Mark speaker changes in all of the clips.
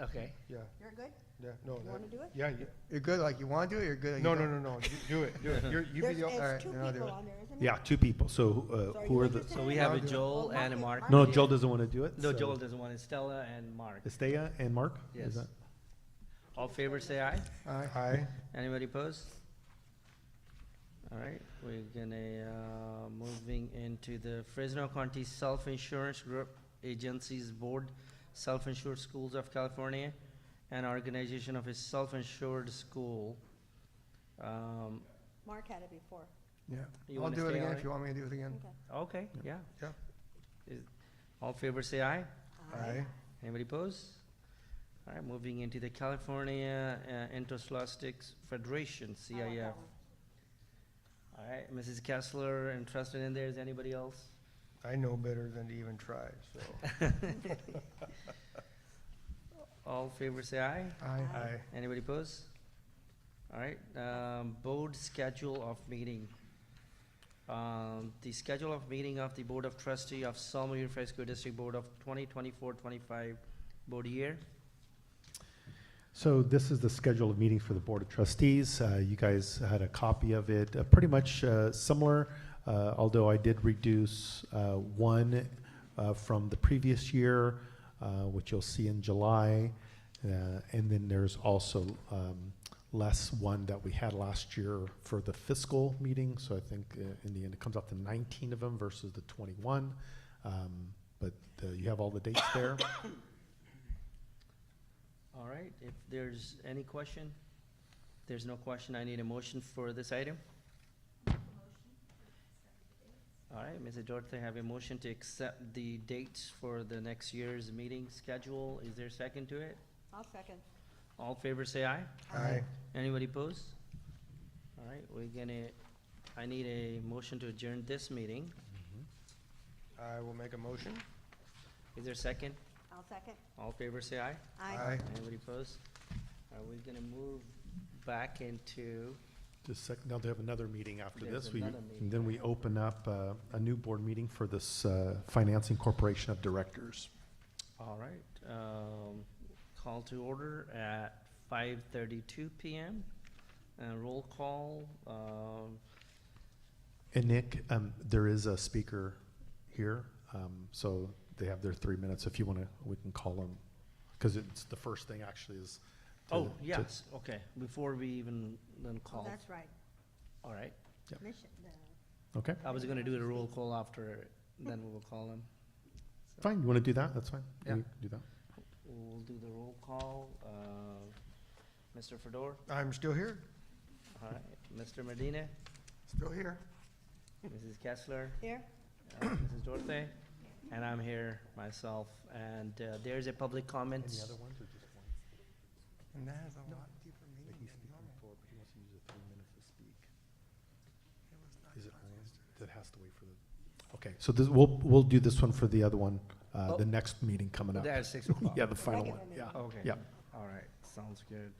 Speaker 1: Okay.
Speaker 2: Yeah,
Speaker 3: You're good?
Speaker 2: yeah, no.
Speaker 3: You
Speaker 2: that-
Speaker 3: wanna do it?
Speaker 2: Yeah, you-
Speaker 4: You're good, like you want to do it, you're good. like you
Speaker 2: no, no,
Speaker 4: don't.
Speaker 2: no, no, you- do it, do it. You're- You be
Speaker 3: There's,
Speaker 2: the,
Speaker 4: all right,
Speaker 3: there's two
Speaker 4: then I'll do
Speaker 3: people
Speaker 4: it.
Speaker 3: on there, isn't there?
Speaker 5: Yeah, two people. So
Speaker 3: So
Speaker 5: uh,
Speaker 3: are
Speaker 5: who
Speaker 3: you
Speaker 5: are the?
Speaker 3: interested
Speaker 1: So
Speaker 3: in
Speaker 1: we
Speaker 3: it?
Speaker 1: have a
Speaker 4: I'll do it.
Speaker 1: Joel
Speaker 3: Well,
Speaker 1: and a
Speaker 3: Mark
Speaker 1: Mark.
Speaker 3: is-
Speaker 5: No, Joel doesn't want to do it.
Speaker 1: No,
Speaker 5: so-
Speaker 1: Joel doesn't want it. Stella and Mark.
Speaker 5: Estea and Mark.
Speaker 1: Yes.
Speaker 5: Is that-
Speaker 1: All in favor say aye.
Speaker 4: Aye.
Speaker 2: aye,
Speaker 1: Anybody opposed? All right, we're gonna, uh, moving into the Fresno County Self-Insurance Group Agencies Board, Self-Insured Schools of California, and Organization of a Self-Insured School. Um,
Speaker 3: Mark had it before.
Speaker 1: you
Speaker 4: Yeah. I'll
Speaker 1: wanna
Speaker 4: do it
Speaker 1: stay
Speaker 4: again
Speaker 1: on
Speaker 4: if you want me to do it again.
Speaker 3: Okay.
Speaker 1: Okay, yeah.
Speaker 2: Yeah.
Speaker 1: Is- All in favor say aye.
Speaker 2: aye,
Speaker 1: Anybody pose? All right, moving into the California uh, Interscholastics
Speaker 3: I
Speaker 1: Federation,
Speaker 3: like that
Speaker 1: CIF.
Speaker 3: one.
Speaker 1: All right, Mrs. Kessler interested in there, is anybody else?
Speaker 2: I know better than to even try, so,
Speaker 1: All in favor say aye,
Speaker 4: Aye.
Speaker 2: aye.
Speaker 1: anybody pose? All right, um, board schedule of meeting. Um, the schedule of meeting of the Board of Trustee of Salmo Unified School District Board of 2024-25 board year.
Speaker 5: So this is the schedule of meetings for the Board of Trustees. Uh, You guys had a copy of it, uh, pretty much uh, similar, uh, although I did reduce uh, one uh, from the previous year, uh, which you'll see in July. Uh, And then there's also um, less one that we had last year for the fiscal meeting. So I think uh, in the end, it comes out to 19 of them versus the 21. Um, But uh, you have all the dates there.
Speaker 1: All right, if there's any question, there's no question, I need a motion for this item. All right, Mrs. Dorte, have a motion to accept the dates for the next year's meeting schedule. Is there a second to it?
Speaker 3: I'll second.
Speaker 1: All in favor say aye.
Speaker 2: Aye.
Speaker 1: Anybody pose? All right, we're gonna, I need a motion to adjourn this meeting.
Speaker 2: I will make a motion.
Speaker 1: Is there a second?
Speaker 3: I'll second.
Speaker 1: All in favor say aye.
Speaker 2: Aye.
Speaker 1: Anybody pose? Are we gonna move back into?
Speaker 5: Just sec, now they have another meeting after
Speaker 1: There's
Speaker 5: this. We,
Speaker 1: another meeting.
Speaker 5: and then we open up uh, a new board meeting for this uh, Financing Corporation of Directors.
Speaker 1: All right, um, call to order at five thirty-two PM. And roll call, um,
Speaker 5: And Nick, um, there is a speaker here, um, so they have their three minutes. If you want to, we can call them. Because it's, the first thing actually is. to-
Speaker 1: oh,
Speaker 5: to-
Speaker 1: yes, okay, before we even then
Speaker 3: Oh,
Speaker 1: call,
Speaker 3: that's right.
Speaker 1: all right.
Speaker 5: Yep.
Speaker 3: Mission, the-
Speaker 5: Okay,
Speaker 1: I was gonna do the roll call after, then we will call them.
Speaker 5: fine. You want to do that? That's fine.
Speaker 1: Yeah.
Speaker 5: We Do that.
Speaker 1: We'll do the roll call, uh, Mr. Fedor,
Speaker 2: I'm still here,
Speaker 1: all right, Mr. Medina,
Speaker 2: still here.
Speaker 1: Mrs. Kessler,
Speaker 3: Here,
Speaker 1: uh, Mrs. Dorte, and I'm here myself, and, uh, there's a public comment.
Speaker 5: Any other ones or just one?
Speaker 2: And that is a lot deeper
Speaker 5: But
Speaker 2: meaning
Speaker 5: he's
Speaker 2: than
Speaker 5: speaking
Speaker 2: normal.
Speaker 5: forward, but he wants to use the three minutes to speak.
Speaker 2: It was not
Speaker 5: Is it on?
Speaker 2: yesterday.
Speaker 5: That has to wait for the, okay, so this, we'll, we'll do this one for the other one, uh,
Speaker 1: Oh.
Speaker 5: the next meeting coming up.
Speaker 1: That's six o'clock.
Speaker 5: Yeah, the final
Speaker 3: Regular
Speaker 5: one,
Speaker 3: meeting.
Speaker 5: yeah.
Speaker 1: Okay.
Speaker 5: Yep.
Speaker 1: All right, sounds good.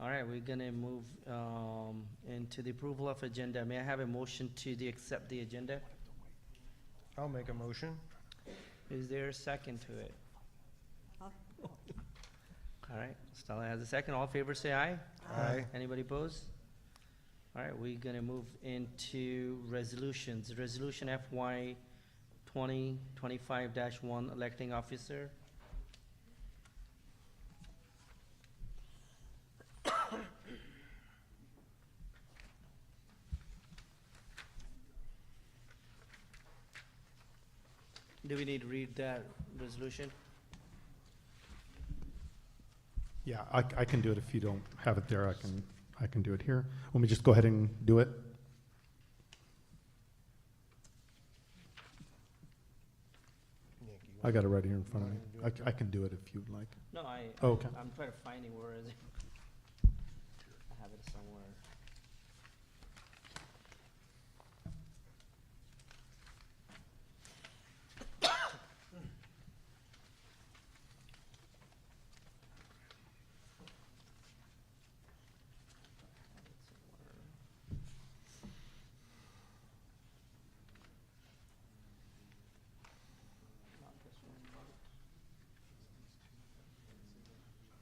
Speaker 1: All right, we're gonna move um, into the approval of agenda. May I have a motion to the, accept the agenda?
Speaker 2: I'll make a motion.
Speaker 1: Is there a second to it?
Speaker 3: I'll-
Speaker 1: All right, Stella has a second. All in favor, say aye.
Speaker 2: Aye.
Speaker 1: Anybody pose? All right, we're gonna move into resolutions. Resolution FY twenty twenty-five one, electing officer. Do we need to read that resolution?
Speaker 5: Yeah, I, I can do it if you don't have it there, I can, I can do it here. Let me just go ahead and do it.
Speaker 2: Nick, you
Speaker 5: I
Speaker 2: want-
Speaker 5: got it right here in front of
Speaker 2: You
Speaker 5: me.
Speaker 2: wanna do
Speaker 5: I,
Speaker 2: it
Speaker 5: c- I can do it if you'd like. Oh,
Speaker 1: No, I,
Speaker 5: Okay.
Speaker 1: I'm trying to find it, where is it? I have it somewhere.